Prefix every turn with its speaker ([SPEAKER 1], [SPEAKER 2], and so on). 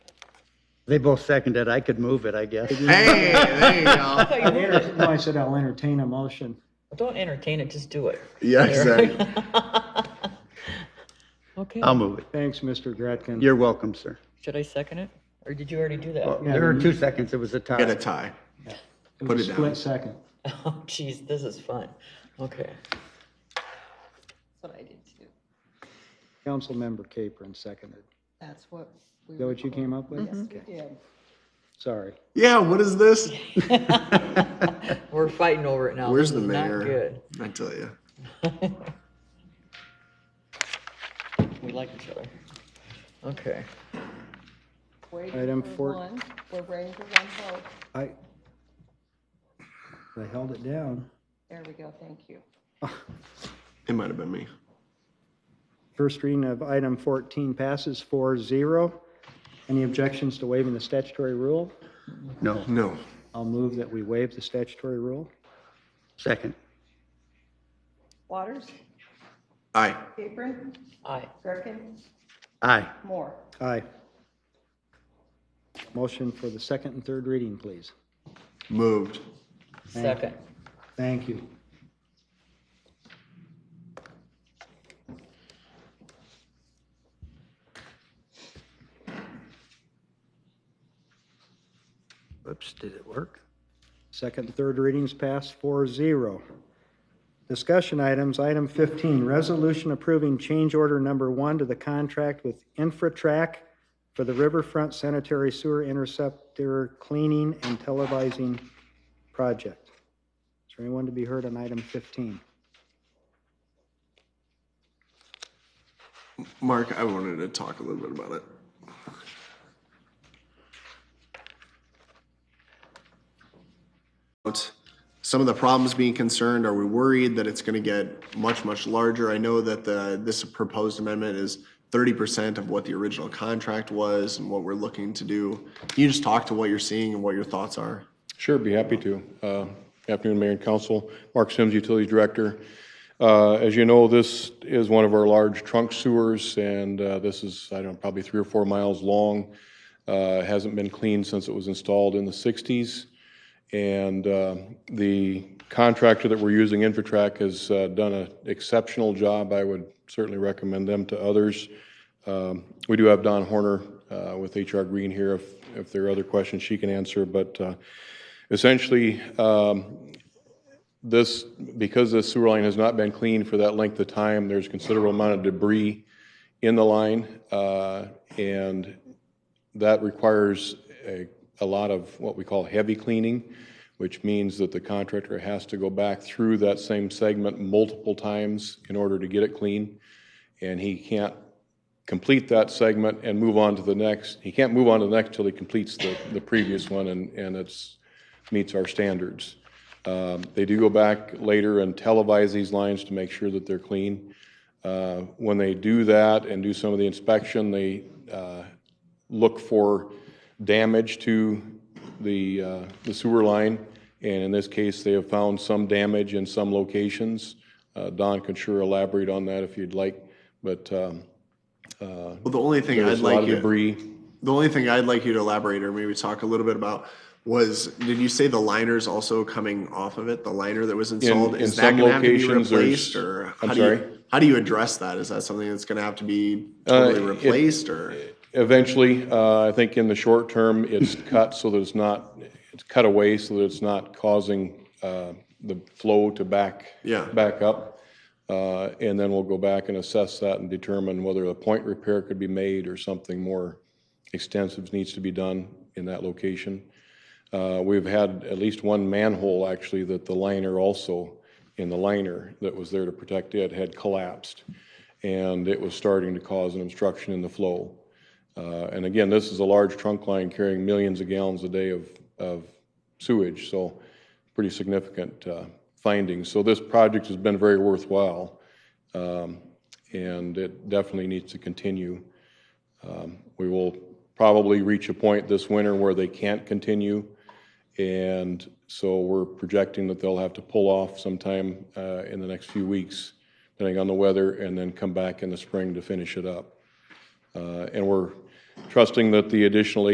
[SPEAKER 1] They both seconded. I could move it, I guess.
[SPEAKER 2] Hey, there you go.
[SPEAKER 3] I thought you were-
[SPEAKER 4] No, I said I'll entertain a motion.
[SPEAKER 3] Don't entertain it, just do it.
[SPEAKER 2] Yeah, exactly.
[SPEAKER 3] Okay,
[SPEAKER 2] Um,
[SPEAKER 1] I'll move it.
[SPEAKER 4] Thanks, Mr. Gretkin.
[SPEAKER 1] You're welcome, sir.
[SPEAKER 3] should I second it? Or did you already do
[SPEAKER 1] Well,
[SPEAKER 3] that?
[SPEAKER 1] There are two seconds. It was a
[SPEAKER 2] Get a
[SPEAKER 1] tie.
[SPEAKER 2] tie.
[SPEAKER 4] was
[SPEAKER 2] put
[SPEAKER 4] a
[SPEAKER 2] it down.
[SPEAKER 4] Split second.
[SPEAKER 3] Oh, geez, this is fun. Okay.
[SPEAKER 5] That's what I did too.
[SPEAKER 4] Councilmember Capron seconded.
[SPEAKER 5] That's what.
[SPEAKER 4] Is that what you came up with?
[SPEAKER 5] Yes, we
[SPEAKER 4] Okay.
[SPEAKER 5] did.
[SPEAKER 4] Sorry.
[SPEAKER 2] Yeah, what is this?
[SPEAKER 3] We're fighting over it now.
[SPEAKER 2] Where's
[SPEAKER 3] This
[SPEAKER 2] the
[SPEAKER 3] is not
[SPEAKER 2] mayor?
[SPEAKER 3] good.
[SPEAKER 2] I tell you.
[SPEAKER 3] We like each other. Okay.
[SPEAKER 5] Waiting
[SPEAKER 4] Item
[SPEAKER 5] for
[SPEAKER 4] four-
[SPEAKER 5] one. We're waiting for one vote.
[SPEAKER 4] I, I held it down.
[SPEAKER 5] There we go, thank you.
[SPEAKER 2] It might have been me.
[SPEAKER 4] First reading of item 14 passes 4-0. Any objections to waiving the statutory rule?
[SPEAKER 1] No,
[SPEAKER 2] No.
[SPEAKER 4] I'll move that we waive the statutory rule.
[SPEAKER 1] second.
[SPEAKER 5] Waters,
[SPEAKER 2] Aye.
[SPEAKER 5] Capron,
[SPEAKER 3] Aye.
[SPEAKER 5] Greckin,
[SPEAKER 1] Aye.
[SPEAKER 5] Moore.
[SPEAKER 4] Aye. Motion for the second and third reading, please.
[SPEAKER 2] Moved.
[SPEAKER 3] Second.
[SPEAKER 4] Thank you.
[SPEAKER 1] Oops, did it work?
[SPEAKER 4] Second and third readings passed 4-0. Discussion items, item 15, resolution approving change order number one to the contract with Infratrack for the Riverfront Sanitary Sewer Interceptor Cleaning and Televising Project. Is there anyone to be heard on item 15?
[SPEAKER 2] Mark, I wanted to talk a little bit about it. About Some of the problems being concerned, are we worried that it's going to get much, much larger? I know that the, this proposed amendment is thirty percent of what the original contract was and what we're looking to do. Can you just talk to what you're seeing and what your thoughts are?
[SPEAKER 6] Sure, be happy to. Uh, Afternoon, Mayor and Council. Mark Sims, Utilities Director. Uh, As you know, this is one of our large trunk sewers, and uh, this is, I don't know, probably three or four miles long. Uh, Hasn't been cleaned since it was installed in the 60s. And uh, the contractor that we're using, Infotrak, has uh, done an exceptional job. I would certainly recommend them to others. Um, We do have Don Horner uh, with HR Green here. If if there are other questions, she can answer. But uh, essentially, um, this, because this sewer line has not been cleaned for that length of time, there's considerable amount of debris in the line, uh, and that requires a, a lot of what we call heavy cleaning, which means that the contractor has to go back through that same segment multiple times in order to get it clean, and he can't complete that segment and move on to the next. He can't move on to the next till he completes the, the previous one, and, and it's, meets our standards. Um, They do go back later and televise these lines to make sure that they're clean. Uh, When they do that and do some of the inspection, they uh, look for damage to the uh, the sewer line, and in this case, they have found some damage in some locations. Uh, Don can sure elaborate on that if you'd like, but um,
[SPEAKER 2] Well, the only thing I'd
[SPEAKER 6] there's a lot
[SPEAKER 2] like
[SPEAKER 6] of
[SPEAKER 2] you.
[SPEAKER 6] debris.
[SPEAKER 2] The only thing I'd like you to elaborate or maybe talk a little bit about was, did you say the liner's also coming off of it? The liner that was installed?
[SPEAKER 6] in
[SPEAKER 2] Is
[SPEAKER 6] some
[SPEAKER 2] that gonna have to be
[SPEAKER 6] locations, there's-
[SPEAKER 2] replaced or?
[SPEAKER 6] I'm
[SPEAKER 2] how do you-
[SPEAKER 6] sorry?
[SPEAKER 2] How do you address that? Is that something that's gonna have to be
[SPEAKER 6] Uh,
[SPEAKER 2] totally
[SPEAKER 6] it-
[SPEAKER 2] replaced or?
[SPEAKER 6] Eventually, uh, I think in the short term, it's cut so that it's not, it's cut away so that it's not causing uh, the flow to back,
[SPEAKER 2] Yeah.
[SPEAKER 6] back up. Uh, And then we'll go back and assess that and determine whether a point repair could be made or something more extensive needs to be done in that location. Uh, We've had at least one manhole, actually, that the liner also, in the liner that was there to protect it, had collapsed. And it was starting to cause an obstruction in the flow. Uh, And again, this is a large trunk line carrying millions of gallons a day of, of sewage, so pretty significant uh, findings. So this project has been very worthwhile, um, and it definitely needs to continue. Um, We will probably reach a point this winter where they can't continue, and so we're projecting that they'll have to pull off sometime uh, in the next few weeks, depending on the weather, and then come back in the spring to finish it up. Uh, And we're trusting that the additional